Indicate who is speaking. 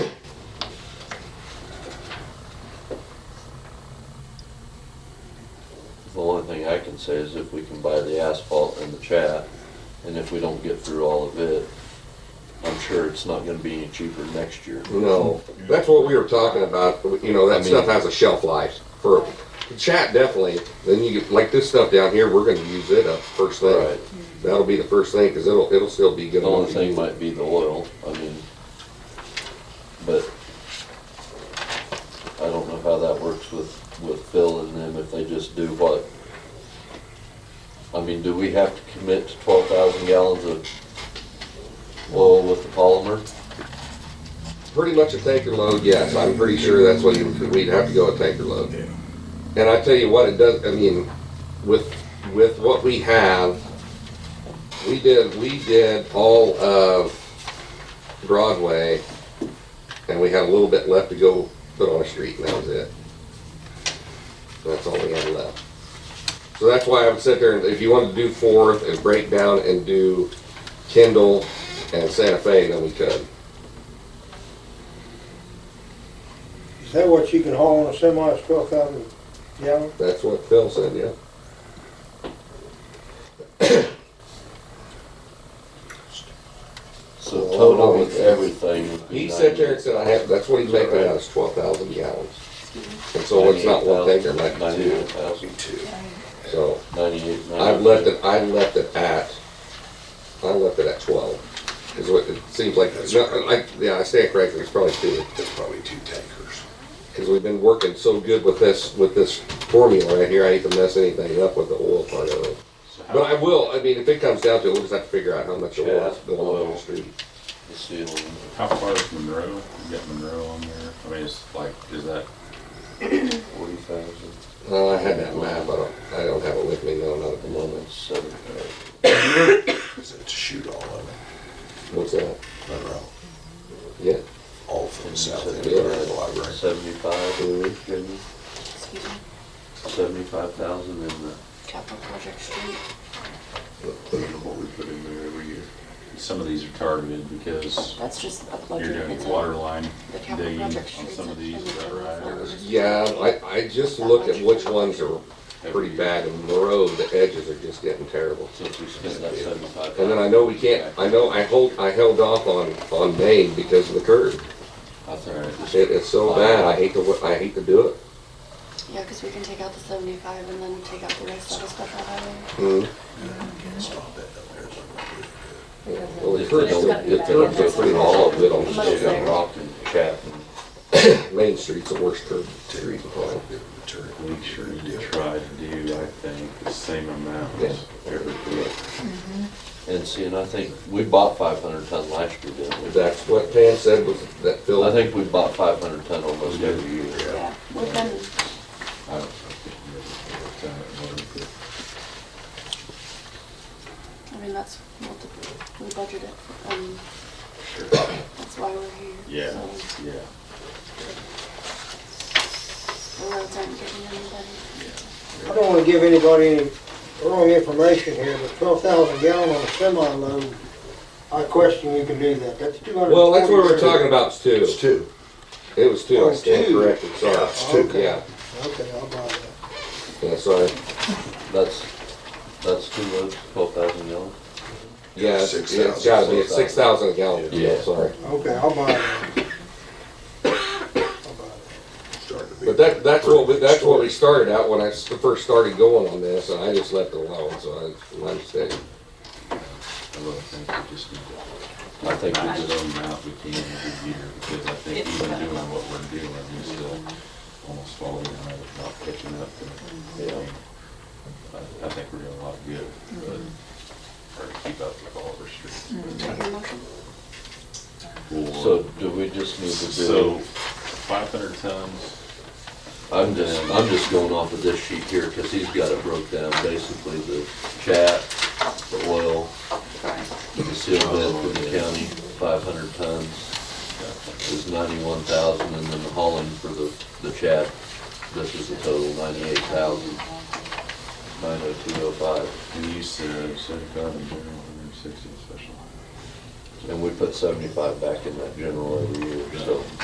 Speaker 1: can say is if we can buy the asphalt and the chat, and if we don't get through all of it, I'm sure it's not gonna be any cheaper next year.
Speaker 2: No, that's what we were talking about. You know, that
Speaker 3: mean-
Speaker 2: stuff has a shelf life for chat definitely. Then you get like this stuff down here, we're going to use it up first thing.
Speaker 1: Right.
Speaker 2: That'll be the first thing because it'll it'll still be good.
Speaker 1: The only
Speaker 2: enough to
Speaker 1: thing
Speaker 2: use.
Speaker 1: might be the oil, I mean, but I don't know how that works with, with Phil and them, if they just do what. I mean, do we have to commit to twelve thousand gallons of oil with the polymer?
Speaker 2: pretty much a tanker load. Yes, I'm pretty sure that's what you, we'd have to go a tanker load.
Speaker 4: Yeah.
Speaker 2: And I tell you what, it does. I mean, with with what we have, we did we did all of Broadway, and we had a little bit left to go put on a street, and that was it. That's all we had left. So that's why I would sit there and if you wanted to do Fourth and break down and do Kendall and Santa Fe, then we could.
Speaker 5: Is that what you can haul on a semi, is twelve thousand gallon?
Speaker 2: That's what Phil said, yeah.
Speaker 1: So
Speaker 2: Well,
Speaker 1: total
Speaker 2: no,
Speaker 1: with
Speaker 2: he-
Speaker 1: everything would be
Speaker 2: He sat there and
Speaker 1: ninety-
Speaker 2: said, I have, that's what he's making out, is twelve thousand gallons. And so it's not one tanker, it might be two,
Speaker 1: 98,000,
Speaker 2: so
Speaker 1: Ninety-eight, ninety-two.
Speaker 2: I've left it, I left it at, I left it at twelve. Is what, it seems like, no, I, yeah, I stand corrected, it's probably two,
Speaker 4: That's probably two tankers.
Speaker 2: because we've been working so good with this, with this formula right here, I hate to mess anything up with the oil part of it.
Speaker 1: So
Speaker 2: But
Speaker 1: how-
Speaker 2: I will, I mean, if it comes down to it, we'll just have to figure out how much it was,
Speaker 1: Yeah,
Speaker 2: the oil on
Speaker 1: oil.
Speaker 2: the street.
Speaker 1: the ceiling,
Speaker 3: How far is Monroe? You got Monroe on there? I mean, it's like, is that,
Speaker 1: forty thousand,
Speaker 2: Uh, I had that map, I don't, I don't have it with me, no, not at the
Speaker 1: and then
Speaker 2: moment.
Speaker 1: it's seven thousand.
Speaker 4: Is it to shoot all of it?
Speaker 2: What's that?
Speaker 4: Monroe,
Speaker 2: Yeah.
Speaker 4: all from the south end
Speaker 2: Yeah.
Speaker 4: of the library.
Speaker 1: Seventy-five, Jamie?
Speaker 2: Mm-hmm.
Speaker 6: Excuse me,
Speaker 1: seventy-five thousand in the,
Speaker 6: capital project street.
Speaker 4: I don't know what we put in there every year.
Speaker 3: some of these are targeted because
Speaker 6: That's just a
Speaker 3: you're
Speaker 6: budget.
Speaker 3: doing
Speaker 6: It's
Speaker 3: your
Speaker 6: a-
Speaker 3: water line
Speaker 6: The capital
Speaker 3: digging on
Speaker 6: project streets.
Speaker 3: some of
Speaker 6: actually
Speaker 3: these, is that
Speaker 6: general
Speaker 3: right?
Speaker 6: fund.
Speaker 2: Yeah, I, I just looked at which ones are pretty bad and Monroe, the edges are just getting terrible.
Speaker 1: since we spent that seventy-five
Speaker 2: And then I
Speaker 1: thousand,
Speaker 2: know we can't, I know I hold, I held off on, on Maine because of the curb.
Speaker 1: I think we just
Speaker 2: It is so bad, I hate to, wa- I hate to do it.
Speaker 6: Yeah, because we can take out the seventy-five and then take out the rest of the special highway.
Speaker 2: Mhm.
Speaker 4: Stop that down there.
Speaker 2: Well, the curbs, are- the curbs are pretty all of it on the
Speaker 1: did
Speaker 2: street.
Speaker 1: a rock and cap and
Speaker 2: Main Street's the worst curb
Speaker 4: Terry,
Speaker 2: street.
Speaker 4: all the material.
Speaker 3: We should try to do, I think, the same amount
Speaker 2: Yeah.
Speaker 3: every year.
Speaker 1: And see, and I think we bought five hundred ton last year, didn't we?
Speaker 2: That's what Pam said was that Phil.
Speaker 1: I think we bought five hundred ton almost every year.
Speaker 6: Yeah, we've been,
Speaker 3: I don't know.
Speaker 6: I mean, that's what the, we budgeted, um, that's why we're here.
Speaker 3: Yeah,
Speaker 6: so
Speaker 3: yeah,
Speaker 6: The roads aren't getting any better.
Speaker 5: I don't wanna give anybody any wrong information here, but twelve thousand gallon on a semi load, I question you can do that, that's two hundred.
Speaker 2: Well, that's what we we're talking about too.
Speaker 4: It's two.
Speaker 2: It was two, I stand
Speaker 5: Two.
Speaker 2: corrected, sorry.
Speaker 4: it's two.
Speaker 2: Yeah,
Speaker 5: Okay, I'll buy that.
Speaker 2: yeah, sorry.
Speaker 1: That's, that's two loads, twelve thousand gallons.
Speaker 2: Yeah, it's-
Speaker 4: Six
Speaker 2: it's
Speaker 4: thousand.
Speaker 2: gotta be, it's six thousand a gallon,
Speaker 1: Yeah.
Speaker 2: yeah, sorry.
Speaker 5: Okay, I'll buy that. I'll buy that.
Speaker 4: Started to be-
Speaker 2: But that, that's what, we- that's what we started out when I s- first started going on this, and I just left it alone, so I, my mistake.
Speaker 3: I really think we just need to,
Speaker 1: I think we
Speaker 3: I
Speaker 1: just,
Speaker 3: just don't know if we can every year, because I think even doing what we're doing, we still almost fall behind, not catching up. and-
Speaker 1: Yeah.
Speaker 3: I, I think we're doing a lot of good, but, or to keep up with all of our streets.
Speaker 6: Take your motion.
Speaker 1: so do we just need to
Speaker 3: So,
Speaker 1: do,
Speaker 3: five hundred tons,
Speaker 1: I'm just, I'm just going off of this sheet here, cause he's got it broke down, basically the chat, the oil, the seal bid for the county, five hundred tons. is ninety-one thousand, and then the hauling for the, the chat, this is the total, ninety-eight thousand, nine oh two oh five.
Speaker 3: and you said seventy-five in general, and then sixty in special.
Speaker 1: And we put seventy-five back in that general every year, so.